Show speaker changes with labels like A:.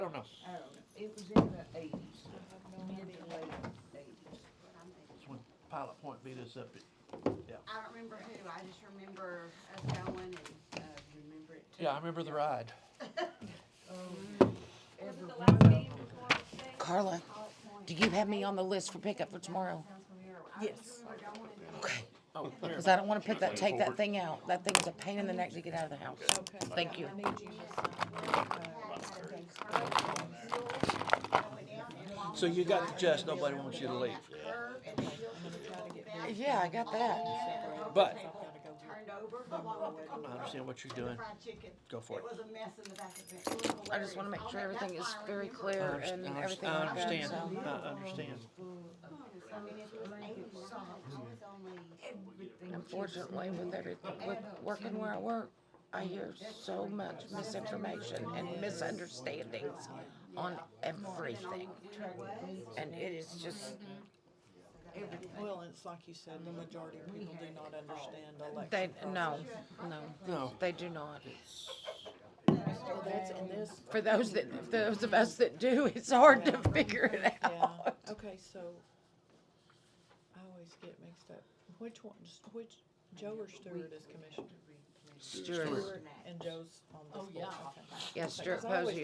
A: I don't know.
B: I don't know, Oh, it was in the eighties, mid to late eighties.
A: It's when Pilot Point beat us up. at-
C: I don't remember who, I just remember us going and, uh, remember it.
A: Yeah, I remember the ride.
B: Every
D: Wasn't the
B: one
D: last
B: of
D: meeting
B: them.
D: before the thing?
E: Carla,
C: Pilot Point.
E: do you have me on the list for pickup for tomorrow?
C: Sounds familiar. I just
B: Yes.
C: remember going and-
A: Oh, here.
E: Because I don't want to pick that, take that thing out. That thing is a pain in the neck to get out of the house.
B: Okay.
E: Thank you.
B: I need you to
E: Uh,
B: sign.
A: So you got the gist, nobody wants you to leave.
E: Yeah, I got that.
A: But-
C: Turned over along with the
A: I understand what you're doing.
C: fried chicken.
A: Go for it.
C: It was a mess in the back of it. It was
E: I just want to make
C: hilarious.
E: sure
C: All that-
E: everything is
C: that's why I remember
E: very
C: it.
A: I
E: clear and
A: understand, I
E: everything like that,
A: understand, I
E: so.
A: understand.
C: I mean, it was eight songs. I was only
B: Everything.
E: Unfortunately, with every, with working where I work, I hear so much misinformation and misunderstandings on everything. And it is just,
F: Well, it's like you said, the majority of people do not understand
E: they,
F: election.
E: no, no.
A: No.
E: They do not.
F: So Oh, that's in this,
E: For those that, for those of us that do, it's hard to figure it
F: yeah,
E: out.
F: okay, so I always get mixed up. Which one, which, Joe or Stewart is commissioner?
E: Stuart,
F: And Joe's on this board, okay.
E: yes, Stuart
F: Because I always
E: Posey